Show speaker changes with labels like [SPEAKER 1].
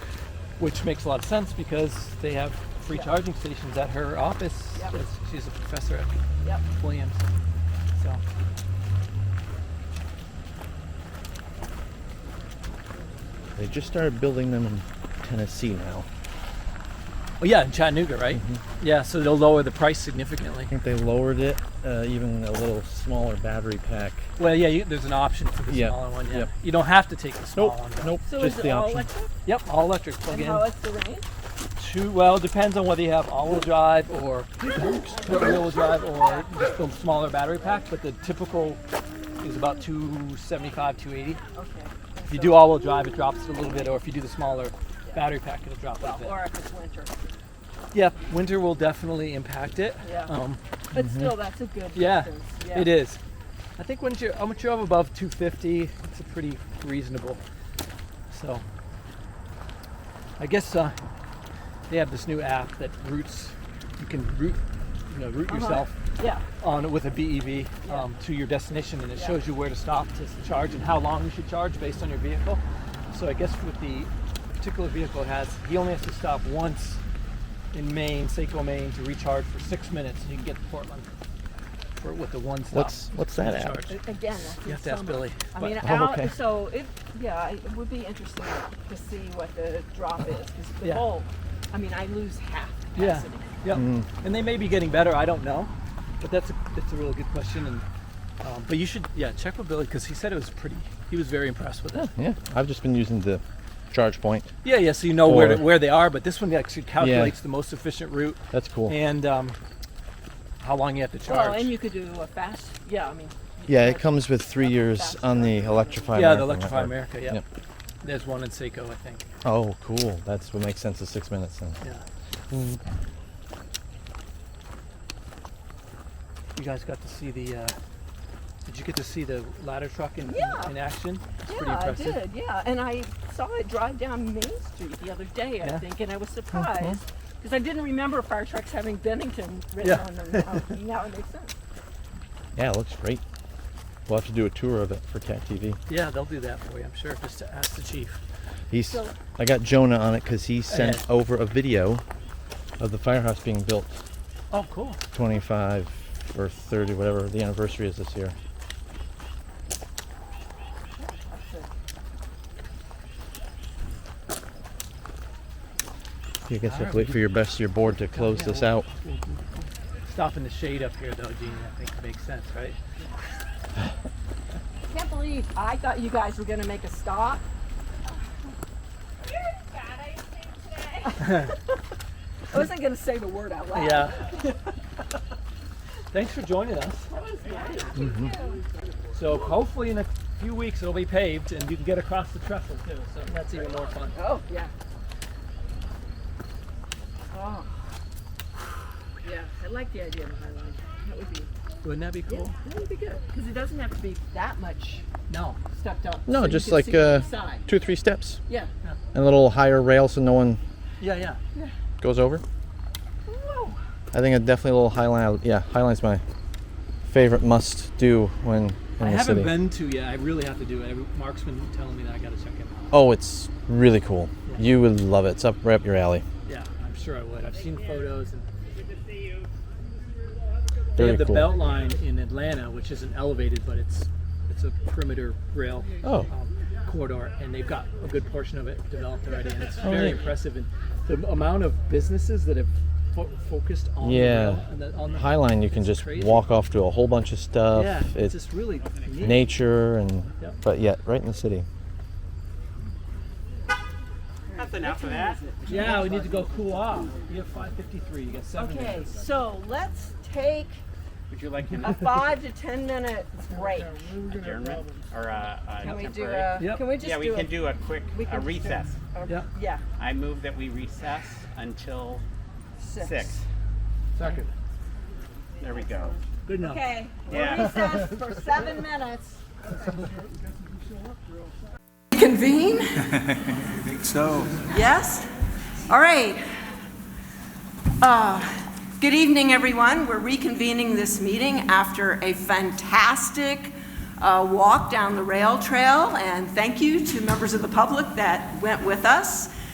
[SPEAKER 1] which makes a lot of sense because they have free
[SPEAKER 2] Yeah.
[SPEAKER 1] charging stations at her office.
[SPEAKER 2] Yep.
[SPEAKER 1] as She's a professor at
[SPEAKER 2] Yep.
[SPEAKER 1] Williams. So
[SPEAKER 3] They just started building them in Tennessee now.
[SPEAKER 1] well, oh, yeah, in Chattanooga, right?
[SPEAKER 3] Mm-hmm.
[SPEAKER 1] Yeah, so they'll lower the price significantly.
[SPEAKER 3] I think they lowered it, uh, even a little smaller battery pack.
[SPEAKER 1] Well, yeah, you, there's an option for the
[SPEAKER 3] Yeah,
[SPEAKER 1] smaller one. Yeah,
[SPEAKER 3] yep.
[SPEAKER 1] you don't have to take the small
[SPEAKER 3] Nope,
[SPEAKER 1] one. though.
[SPEAKER 3] nope,
[SPEAKER 2] So
[SPEAKER 3] just
[SPEAKER 2] is it
[SPEAKER 3] the
[SPEAKER 2] all
[SPEAKER 3] option.
[SPEAKER 2] electric?
[SPEAKER 1] Yep, all electric plug
[SPEAKER 2] And
[SPEAKER 1] in.
[SPEAKER 2] how what's the range?
[SPEAKER 1] Two, well, it depends on whether you have all-wheel drive or rear-wheel drive or just the smaller battery pack. But the typical is about 275, 280.
[SPEAKER 2] Okay.
[SPEAKER 1] If you do all-wheel drive, it drops a little bit, or if you do the smaller battery pack, it'll drop a
[SPEAKER 2] Well,
[SPEAKER 1] little
[SPEAKER 2] or if it's winter.
[SPEAKER 1] bit. Yeah, winter will definitely impact it.
[SPEAKER 2] Yeah.
[SPEAKER 1] Um,
[SPEAKER 2] But still, that's a good
[SPEAKER 1] Yeah,
[SPEAKER 2] distance.
[SPEAKER 1] it is. I think once you're once you're up above 250, it's a pretty reasonable. So, I guess uh, they have this new app that routes. You can route, you know, route
[SPEAKER 2] Uh-huh.
[SPEAKER 1] yourself
[SPEAKER 2] Yeah.
[SPEAKER 1] on with a BEV
[SPEAKER 2] Yeah.
[SPEAKER 1] um, to your destination, and it
[SPEAKER 2] Yeah.
[SPEAKER 1] shows you where to stop to charge and how long you should charge based on your vehicle. So I guess with the particular vehicle it has, he only has to stop once in Maine, Seiko, Maine, to recharge for six minutes, and you can get to Portland for with the one stop.
[SPEAKER 3] What's what's that app?
[SPEAKER 1] charge.
[SPEAKER 2] A- Again, that's
[SPEAKER 1] You
[SPEAKER 2] in
[SPEAKER 1] have to ask
[SPEAKER 2] summer.
[SPEAKER 1] Billy,
[SPEAKER 2] I
[SPEAKER 1] but-
[SPEAKER 2] mean,
[SPEAKER 3] Oh,
[SPEAKER 2] out,
[SPEAKER 3] okay.
[SPEAKER 2] so it, yeah, it would be interesting to see what the drop is because the
[SPEAKER 1] Yeah.
[SPEAKER 2] whole, I mean, I lose half
[SPEAKER 1] Yeah,
[SPEAKER 2] capacity.
[SPEAKER 1] yeah,
[SPEAKER 3] Mm.
[SPEAKER 1] and they may be getting better. I don't know, but that's a, that's a really good question. And um, but you should yeah check with Billy because he said it was pretty. He was very impressed with it.
[SPEAKER 3] Yeah, I've just been using the charge point.
[SPEAKER 1] Yeah, yeah. So you know where to,
[SPEAKER 3] Or-
[SPEAKER 1] where they are, but this one actually calculates the most efficient route
[SPEAKER 3] That's cool.
[SPEAKER 1] and um, how long you have to charge.
[SPEAKER 2] Well, and you could do a fast, yeah, I mean,
[SPEAKER 3] yeah, it comes with three
[SPEAKER 2] That's
[SPEAKER 3] years
[SPEAKER 2] faster.
[SPEAKER 3] on the Electrify.
[SPEAKER 1] yeah, the
[SPEAKER 3] America
[SPEAKER 1] Electrify
[SPEAKER 3] network.
[SPEAKER 1] America. Yeah.
[SPEAKER 3] Yep.
[SPEAKER 1] There's one in Seiko, I think.
[SPEAKER 3] Oh, cool. That's what makes sense. Is six minutes then.
[SPEAKER 1] Yeah. You guys got to see the. Uh, did you get to see the ladder truck in, in-
[SPEAKER 2] Yeah.
[SPEAKER 1] in, action? It's pretty
[SPEAKER 2] yeah, I
[SPEAKER 1] impressive.
[SPEAKER 2] did, yeah. And I saw it drive down Main Street the other day, I
[SPEAKER 1] Yeah. Uh-huh.
[SPEAKER 2] think, and I was surprised because I didn't remember fire trucks having Bennington written
[SPEAKER 1] Yeah.
[SPEAKER 2] on them. Now, now it makes sense.
[SPEAKER 3] Yeah, it looks great. We'll have to do a tour of it for Cat TV.
[SPEAKER 1] Yeah, they'll do that for you, I'm sure. Just to ask the chief.
[SPEAKER 3] He's.
[SPEAKER 2] So-
[SPEAKER 3] I got Jonah on it because he sent
[SPEAKER 1] Okay.
[SPEAKER 3] over a video of the firehouse being built.
[SPEAKER 1] Oh, cool.
[SPEAKER 3] 25 or 30, whatever the anniversary is this year.
[SPEAKER 2] That's it.
[SPEAKER 3] I guess you have
[SPEAKER 1] Alright,
[SPEAKER 3] to wait for your best your board to close
[SPEAKER 1] yeah,
[SPEAKER 3] this
[SPEAKER 1] we'll-
[SPEAKER 3] out.
[SPEAKER 1] Stop in the shade up here, though, Gene. I think makes sense, right?
[SPEAKER 2] Can't believe I thought you guys were gonna make a stop.
[SPEAKER 4] You're bad ice cream today.
[SPEAKER 2] I wasn't gonna say the word out loud.
[SPEAKER 1] Yeah. Thanks for joining us. Mm-hmm. So hopefully in a few weeks it'll be paved and you can get across the trestle too. So that's even more fun.
[SPEAKER 2] Oh yeah. Oh. Yeah, I like the idea of a high line. That would be
[SPEAKER 1] Wouldn't that be
[SPEAKER 2] yeah,
[SPEAKER 1] cool?
[SPEAKER 2] that would be good because it doesn't have to be that much
[SPEAKER 1] No.
[SPEAKER 2] stepped up.
[SPEAKER 3] No,
[SPEAKER 2] so you
[SPEAKER 3] just
[SPEAKER 2] can
[SPEAKER 3] like,
[SPEAKER 2] see the
[SPEAKER 3] uh,
[SPEAKER 2] side.
[SPEAKER 3] Two, three steps
[SPEAKER 2] Yeah.
[SPEAKER 3] and a little higher rail so no one
[SPEAKER 1] Yeah, yeah.
[SPEAKER 3] goes over.
[SPEAKER 2] Whoa.
[SPEAKER 3] I think it definitely a little highline. Yeah, highline's my favorite must do when in
[SPEAKER 1] I
[SPEAKER 3] the
[SPEAKER 1] haven't
[SPEAKER 3] city.
[SPEAKER 1] been to yet. I really have to do it. Every- Mark's been telling me that I got to check it out.
[SPEAKER 3] Oh, it's really cool.
[SPEAKER 1] Yeah.
[SPEAKER 3] You would love it. It's up right up your alley.
[SPEAKER 1] Yeah, I'm sure I would. I've seen photos and They
[SPEAKER 3] Very
[SPEAKER 1] have the
[SPEAKER 3] cool.
[SPEAKER 1] belt line in Atlanta, which isn't elevated, but it's it's a perimeter rail
[SPEAKER 3] Oh.
[SPEAKER 1] um, corridor, and they've got a good portion of it developed already, and it's
[SPEAKER 3] Oh,
[SPEAKER 1] very
[SPEAKER 3] neat.
[SPEAKER 1] impressive. And the amount of businesses that have fo- focused on the
[SPEAKER 3] Yeah.
[SPEAKER 1] rail and the, on the
[SPEAKER 3] Highline, you can
[SPEAKER 1] It's
[SPEAKER 3] just
[SPEAKER 1] crazy.
[SPEAKER 3] walk off to a whole bunch of stuff.
[SPEAKER 1] Yeah, it's
[SPEAKER 3] It's
[SPEAKER 1] just really neat.
[SPEAKER 3] nature and
[SPEAKER 1] Yep.
[SPEAKER 3] but yet right in the city.
[SPEAKER 5] That's enough of that.
[SPEAKER 1] Yeah, we need to go cool off. You have 5:53. You got seven
[SPEAKER 2] Okay,
[SPEAKER 1] minutes.
[SPEAKER 2] so let's take
[SPEAKER 5] Would you like him
[SPEAKER 2] a five to ten minute break.
[SPEAKER 5] adjournment or a, a
[SPEAKER 2] Can we do
[SPEAKER 5] temporary?
[SPEAKER 2] a?
[SPEAKER 1] Yep.
[SPEAKER 2] Can we just
[SPEAKER 5] yeah, we
[SPEAKER 2] do
[SPEAKER 5] can
[SPEAKER 2] a,
[SPEAKER 5] do a quick
[SPEAKER 2] we
[SPEAKER 5] a
[SPEAKER 2] can just do
[SPEAKER 5] recess.
[SPEAKER 2] a-
[SPEAKER 1] Yeah.
[SPEAKER 2] Yeah.
[SPEAKER 5] I move that we recess until
[SPEAKER 2] Six.
[SPEAKER 5] six.
[SPEAKER 1] Second.
[SPEAKER 5] There we go.
[SPEAKER 1] Good enough.
[SPEAKER 2] Okay.
[SPEAKER 5] Yeah.
[SPEAKER 2] Recess for seven minutes.
[SPEAKER 6] Convene?
[SPEAKER 7] think so.
[SPEAKER 6] Yes? All right. Uh, Good evening, everyone. We're reconvening this meeting after a fantastic uh, walk down the rail trail, and thank you to members of the public that went with us.